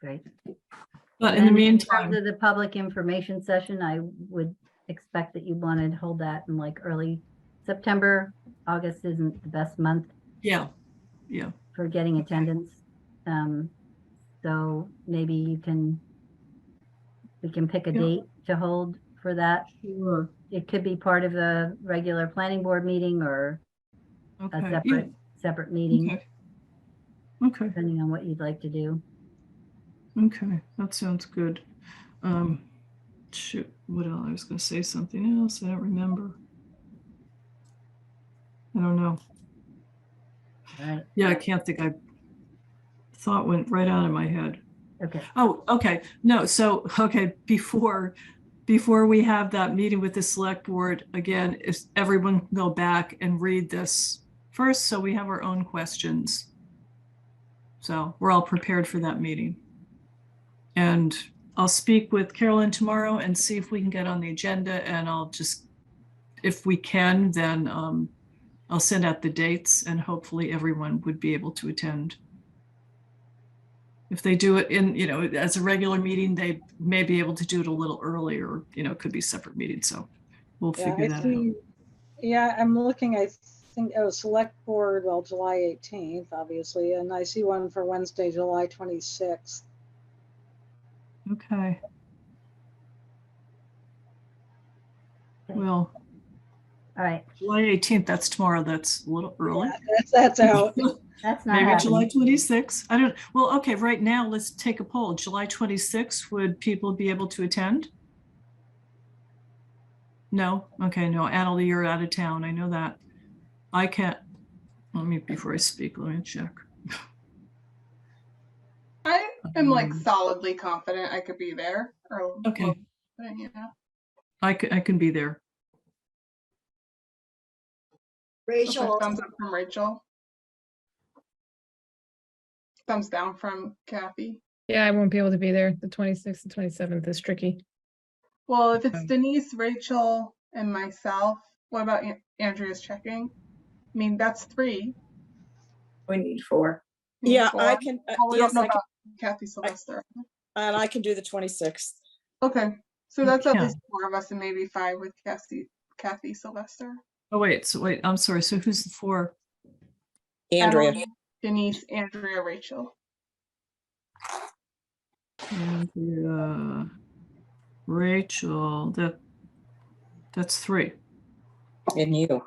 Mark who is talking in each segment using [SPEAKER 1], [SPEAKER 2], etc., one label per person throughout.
[SPEAKER 1] Great.
[SPEAKER 2] But in the
[SPEAKER 1] And terms
[SPEAKER 2] meantime,
[SPEAKER 1] of The public information session, I would expect that you want to hold that in like early September. August isn't the best month
[SPEAKER 2] yeah, yeah.
[SPEAKER 1] for getting attendance. Um, So maybe you can, we can pick a
[SPEAKER 2] Yeah.
[SPEAKER 1] date to hold for that.
[SPEAKER 2] Sure.
[SPEAKER 1] It could be part of a regular planning board meeting or a
[SPEAKER 2] Okay. yeah,
[SPEAKER 1] separate, separate meeting,
[SPEAKER 2] okay. Okay,
[SPEAKER 1] depending on what you'd like to do.
[SPEAKER 2] okay, that sounds good. Um, shoot, what else? I was gonna say something else. I don't remember. I don't know.
[SPEAKER 1] All right,
[SPEAKER 2] Yeah, I can't think. I thought went right out of my head.
[SPEAKER 1] okay.
[SPEAKER 2] Oh, okay. No, so, okay, before, before we have that meeting with the select board, again, if everyone can go back and read this first, so we have our own questions. So we're all prepared for that meeting. And I'll speak with Carolyn tomorrow and see if we can get on the agenda and I'll just, if we can, then um, I'll send out the dates and hopefully everyone would be able to attend if they do it in, you know, as a regular meeting, they may be able to do it a little earlier, you know, it could be separate meetings, so we'll
[SPEAKER 3] Yeah,
[SPEAKER 2] figure
[SPEAKER 3] I
[SPEAKER 2] that out.
[SPEAKER 3] see. Yeah, I'm looking, I think, oh, select board, well, July 18th, obviously, and I see one for Wednesday, July 26th.
[SPEAKER 2] Okay.
[SPEAKER 1] Okay.
[SPEAKER 2] Well,
[SPEAKER 1] All right,
[SPEAKER 2] July eighteenth, that's tomorrow, that's a little early.
[SPEAKER 3] Yeah, That's, that's out.
[SPEAKER 1] that's not
[SPEAKER 2] Maybe July
[SPEAKER 1] happening.
[SPEAKER 2] twenty-sixth, I don't, well, okay, right now, let's take a poll, July twenty-sixth, would people be able to attend? No, okay, no, Annalee, you're out of town, I know that. I can't, let me, before I speak, let me check.
[SPEAKER 4] I am like
[SPEAKER 2] Um,
[SPEAKER 4] solidly confident I could be there. Or
[SPEAKER 2] Okay,
[SPEAKER 4] well, yeah.
[SPEAKER 2] I can, I can be there.
[SPEAKER 4] Okay,
[SPEAKER 5] Rachel,
[SPEAKER 6] um,
[SPEAKER 4] Thumbs up from Rachel. Thumbs down from Kathy.
[SPEAKER 7] Yeah, I won't be able to be there. The 26th and 27th is tricky.
[SPEAKER 4] Well, if it's
[SPEAKER 7] Um,
[SPEAKER 4] Denise, Rachel, and myself, what about An- Andrea's checking? I mean, that's three.
[SPEAKER 8] We need four.
[SPEAKER 4] I mean,
[SPEAKER 6] Yeah, I
[SPEAKER 4] four.
[SPEAKER 6] can, uh,
[SPEAKER 4] Well, Oh, we
[SPEAKER 6] yes,
[SPEAKER 4] don't know
[SPEAKER 6] I can,
[SPEAKER 4] about Kathy Sylvester.
[SPEAKER 6] and I can do the 26th.
[SPEAKER 4] Okay, so that's at
[SPEAKER 2] Yeah.
[SPEAKER 4] least four of us and maybe five with Kathy, Kathy Sylvester.
[SPEAKER 2] Oh, wait, so wait, I'm sorry, so who's the four?
[SPEAKER 6] Andrea,
[SPEAKER 4] Emily, Denise, Andrea, Rachel.
[SPEAKER 2] Andrea, uh, Rachel, that, that's three.
[SPEAKER 6] and you.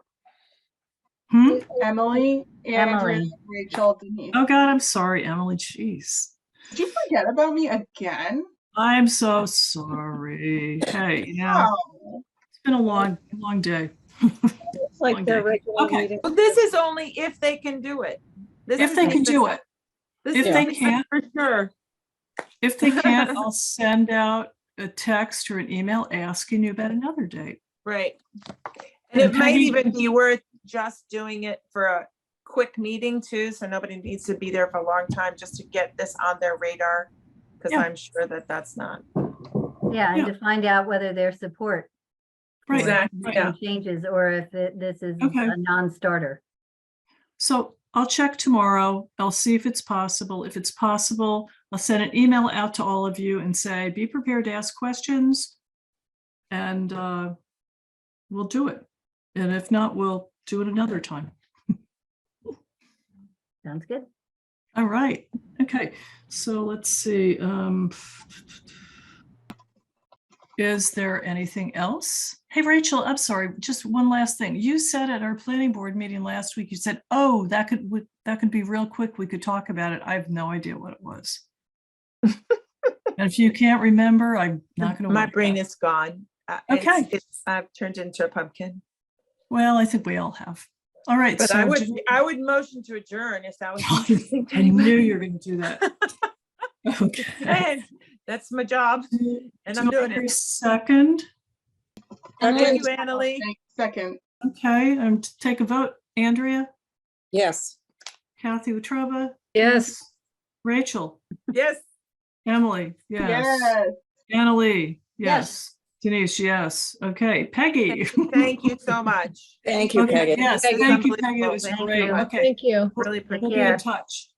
[SPEAKER 2] Hmm?
[SPEAKER 4] Emily, Andrea,
[SPEAKER 1] Emily.
[SPEAKER 4] Rachel, Denise.
[SPEAKER 2] Oh, God, I'm sorry, Emily, jeez.
[SPEAKER 4] Did you forget about me again?
[SPEAKER 2] I'm so sorry. Hey, yeah,
[SPEAKER 4] Oh,
[SPEAKER 2] it's been a long, long day.
[SPEAKER 6] It's like their
[SPEAKER 2] Okay.
[SPEAKER 6] regular
[SPEAKER 2] Okay.
[SPEAKER 6] meeting.
[SPEAKER 9] Well, this is only if they can do it. This
[SPEAKER 2] If
[SPEAKER 9] is
[SPEAKER 2] they can
[SPEAKER 9] the-
[SPEAKER 2] do it,
[SPEAKER 9] this
[SPEAKER 2] if
[SPEAKER 9] is
[SPEAKER 2] they
[SPEAKER 9] the-
[SPEAKER 2] can't-
[SPEAKER 9] For sure.
[SPEAKER 2] if they can't, I'll send out a text or an email asking you about another date.
[SPEAKER 9] Right. And it might
[SPEAKER 2] Depending-
[SPEAKER 9] even be worth just doing it for a quick meeting too, so nobody needs to be there for a long time just to get this on their radar. Because
[SPEAKER 2] Yeah.
[SPEAKER 9] I'm sure that that's not.
[SPEAKER 1] Yeah, and
[SPEAKER 2] Yeah.
[SPEAKER 1] to find out whether there's support
[SPEAKER 2] Right,
[SPEAKER 9] Exactly,
[SPEAKER 2] right.
[SPEAKER 9] yeah.
[SPEAKER 1] and changes or if it- this is
[SPEAKER 2] Okay.
[SPEAKER 1] a non-starter.
[SPEAKER 2] So I'll check tomorrow. I'll see if it's possible. If it's possible, I'll send an email out to all of you and say, be prepared to ask questions. And uh, we'll do it. And if not, we'll do it another time.
[SPEAKER 1] Sounds good.
[SPEAKER 2] All right. Okay. So let's see. um, Is there anything else? Hey, Rachel, I'm sorry. Just one last thing. You said at our planning board meeting last week, you said, oh, that could, would- that could be real quick. We could talk about it. I have no idea what it was. And If you can't remember, I'm not going to.
[SPEAKER 9] My brain is gone. Uh, it's-
[SPEAKER 2] Okay.
[SPEAKER 9] it's- I've turned into a pumpkin,
[SPEAKER 2] Well, I think we all have. All right.
[SPEAKER 9] but
[SPEAKER 2] so
[SPEAKER 9] I would,
[SPEAKER 2] do-
[SPEAKER 9] I would motion to adjourn if that was.
[SPEAKER 2] I knew you were going to do that. Okay.
[SPEAKER 9] Hey, That's my job and I'm
[SPEAKER 2] Do I
[SPEAKER 9] doing
[SPEAKER 2] hear a
[SPEAKER 9] it.
[SPEAKER 2] Second.
[SPEAKER 9] Thank
[SPEAKER 6] Second,
[SPEAKER 9] you, Annalee.
[SPEAKER 4] Second,
[SPEAKER 2] Okay, um, t- take a vote. Andrea,
[SPEAKER 6] Yes.
[SPEAKER 2] Kathy Wetruba,
[SPEAKER 7] Yes.
[SPEAKER 2] Rachel,
[SPEAKER 9] Yes.
[SPEAKER 2] Emily, yes.
[SPEAKER 4] yes.
[SPEAKER 2] Annalee, yes.
[SPEAKER 1] Yes.
[SPEAKER 2] Denise, yes. Okay, Peggy.
[SPEAKER 9] Thank you so much.
[SPEAKER 6] Thank you,
[SPEAKER 2] Okay,
[SPEAKER 6] Peggy.
[SPEAKER 2] Yes,
[SPEAKER 9] This is
[SPEAKER 2] thank you, Peggy. It
[SPEAKER 9] unbelievable.
[SPEAKER 2] was
[SPEAKER 9] Thank
[SPEAKER 2] great.
[SPEAKER 9] you.
[SPEAKER 2] Okay,
[SPEAKER 7] Thank you.
[SPEAKER 9] Really
[SPEAKER 2] we'll be in
[SPEAKER 9] appreciate it.
[SPEAKER 2] touch.